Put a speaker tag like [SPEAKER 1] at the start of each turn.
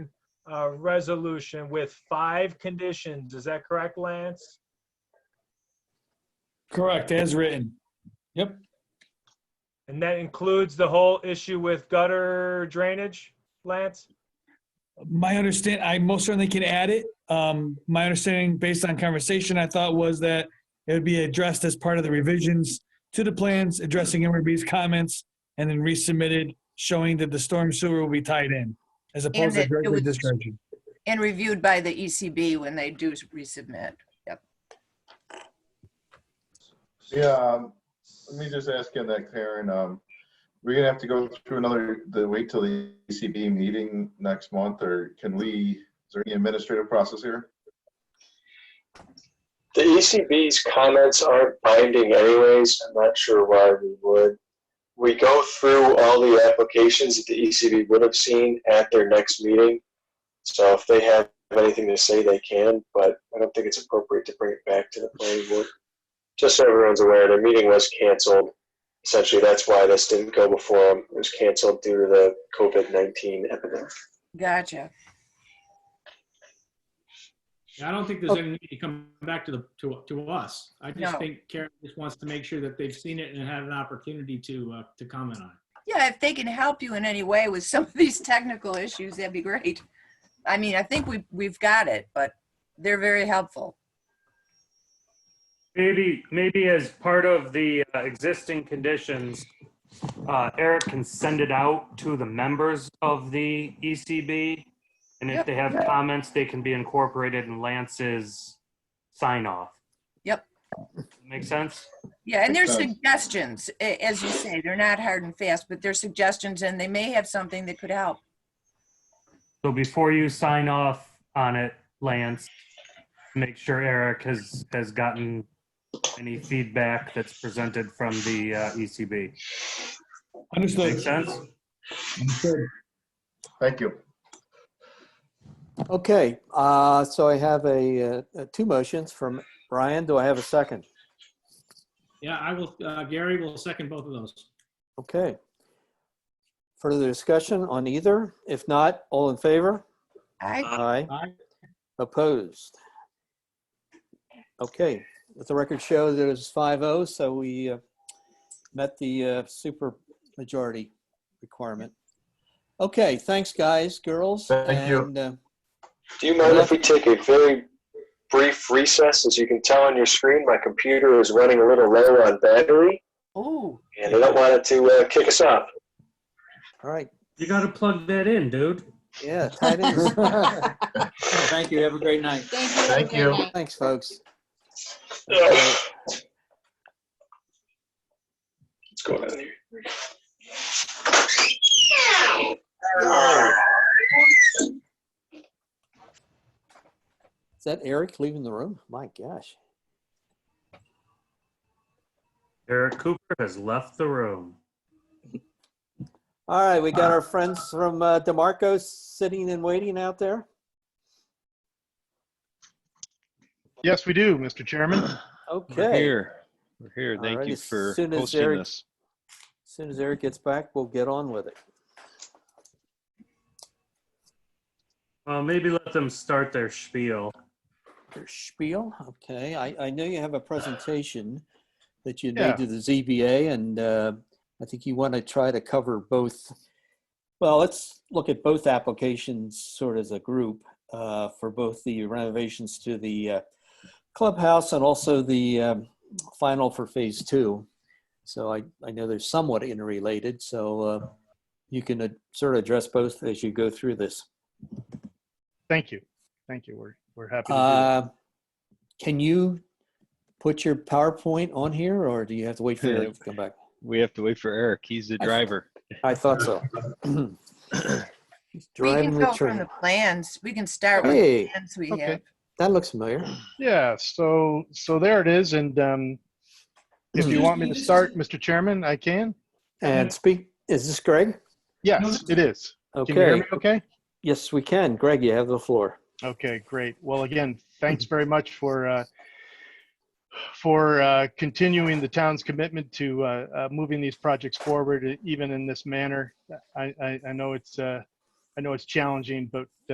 [SPEAKER 1] uh, resolution with five conditions. Is that correct, Lance?
[SPEAKER 2] Correct, as written.
[SPEAKER 1] And that includes the whole issue with gutter drainage, Lance?
[SPEAKER 2] My understand, I most certainly can add it. Um, my understanding, based on conversation, I thought was that it would be addressed as part of the revisions to the plans, addressing MRB's comments, and then resubmitted, showing that the storm sewer will be tied in, as opposed to
[SPEAKER 3] that it
[SPEAKER 2] directly
[SPEAKER 3] was-
[SPEAKER 2] discharging.
[SPEAKER 3] And reviewed by the ECB when they do resubmit.
[SPEAKER 4] Yeah, um, let me just ask you that, Karen. Um, we're gonna have to go through another, the, wait till the ECB meeting next month, or can we, is there any administrative process here?
[SPEAKER 5] The ECB's comments aren't binding anyways. I'm not sure why we would. We go through all the applications that the ECB would have seen at their next meeting. So if they have anything to say, they can, but I don't think it's appropriate to bring it back to the planning board. Just so everyone's aware, their meeting was canceled. Essentially, that's why this didn't go before them. It was canceled due to the COVID-19 epidemic.
[SPEAKER 3] Gotcha.
[SPEAKER 6] Yeah, I don't think there's any need to come back to the, to, to us. I
[SPEAKER 3] Oh. No.
[SPEAKER 6] just think Karen just wants to make sure that they've seen it and had an opportunity to, uh, to comment on it.
[SPEAKER 3] Yeah, if they can help you in any way with some of these technical issues, that'd be great. I mean, I think we, we've got it, but they're very helpful.
[SPEAKER 7] Maybe, maybe as part of the uh, existing conditions, uh, Eric can send it out to the members of the ECB. And if
[SPEAKER 3] Yep.
[SPEAKER 7] they have comments, they can be incorporated in Lance's sign off.
[SPEAKER 3] Yep.
[SPEAKER 7] Make sense?
[SPEAKER 3] Yeah, and there's
[SPEAKER 4] Okay.
[SPEAKER 3] suggestions, a- as you say, they're not hard and fast, but they're suggestions and they may have something that could help.
[SPEAKER 7] So before you sign off on it, Lance, make sure Eric has, has gotten any feedback that's presented from the uh, ECB. Make
[SPEAKER 2] Understood.
[SPEAKER 7] sense?
[SPEAKER 2] Understood.
[SPEAKER 4] Thank you.
[SPEAKER 8] Okay, uh, so I have a, uh, uh, two motions from Brian. Do I have a second?
[SPEAKER 6] Yeah, I will, uh, Gary will second both of those.
[SPEAKER 8] Okay. Further discussion on either? If not, all in favor?
[SPEAKER 3] I,
[SPEAKER 8] Aye.
[SPEAKER 6] Aye.
[SPEAKER 8] Opposed? Okay, let the record show that it was 5-0, so we uh, met the uh, super majority requirement. Okay, thanks, guys, girls.
[SPEAKER 4] Thank you.
[SPEAKER 8] and, uh,
[SPEAKER 5] Do you mind if we take a very brief recess? As you can tell on your screen, my computer is running a little low on battery,
[SPEAKER 3] oh,
[SPEAKER 5] and I don't want it to uh, kick us off.
[SPEAKER 8] All right,
[SPEAKER 7] You gotta plug that in, dude.
[SPEAKER 8] yeah, tight ends.
[SPEAKER 9] Thank you. Have a great night.
[SPEAKER 4] Thank you.
[SPEAKER 8] Thanks, folks.
[SPEAKER 5] What's going on here?
[SPEAKER 8] Is that Eric leaving the room? My gosh.
[SPEAKER 7] Eric Cooper has left the room.
[SPEAKER 8] All right, we got our friends from uh, DeMarco sitting and waiting out there.
[SPEAKER 10] Yes, we do, Mr. Chairman.
[SPEAKER 8] Okay.
[SPEAKER 11] We're here. We're here.
[SPEAKER 8] All
[SPEAKER 11] Thank
[SPEAKER 8] right,
[SPEAKER 11] you
[SPEAKER 8] as
[SPEAKER 11] for
[SPEAKER 8] soon as
[SPEAKER 11] hosting
[SPEAKER 8] Eric-
[SPEAKER 11] this.
[SPEAKER 8] As soon as Eric gets back, we'll get on with it.
[SPEAKER 7] Well, maybe let them start their spiel.
[SPEAKER 8] Your spiel. Okay. I, I know you have a presentation that you
[SPEAKER 10] Yeah.
[SPEAKER 8] made to the ZBA, and uh, I think you want to try to cover both. Well, let's look at both applications sort of as a group uh, for both the renovations to the uh, clubhouse and also the um, final for phase two. So I, I know they're somewhat interrelated. So uh, you can uh, sort of address both as you go through this.
[SPEAKER 10] Thank you. Thank you. We're, we're happy to do that.
[SPEAKER 8] Uh, Can you put your PowerPoint on here or do you have to wait for
[SPEAKER 11] Yeah.
[SPEAKER 8] it to come back?
[SPEAKER 11] We have to wait for Eric. He's the
[SPEAKER 8] I-
[SPEAKER 11] driver.
[SPEAKER 8] I thought so. He's
[SPEAKER 3] we
[SPEAKER 8] Driving
[SPEAKER 3] can
[SPEAKER 8] the
[SPEAKER 3] go from the
[SPEAKER 8] train.
[SPEAKER 3] plans. We can start with the
[SPEAKER 8] Hey,
[SPEAKER 3] plans we
[SPEAKER 10] Okay.
[SPEAKER 3] have.
[SPEAKER 8] that looks familiar.
[SPEAKER 10] Yeah, so, so there it is. And um, if you want me to start, Mr. Chairman, I can?
[SPEAKER 3] Mm-hmm.
[SPEAKER 8] And speak, is this Greg?
[SPEAKER 10] Yes, it is. Can you hear
[SPEAKER 8] Okay.
[SPEAKER 10] me okay?
[SPEAKER 8] Yes, we can. Greg, you have the floor.
[SPEAKER 10] Okay, great. Well, again, thanks very much for, uh, for uh, continuing the town's commitment to uh, uh, moving these projects forward, even in this manner. I, I, I know it's, uh, I know it's challenging, but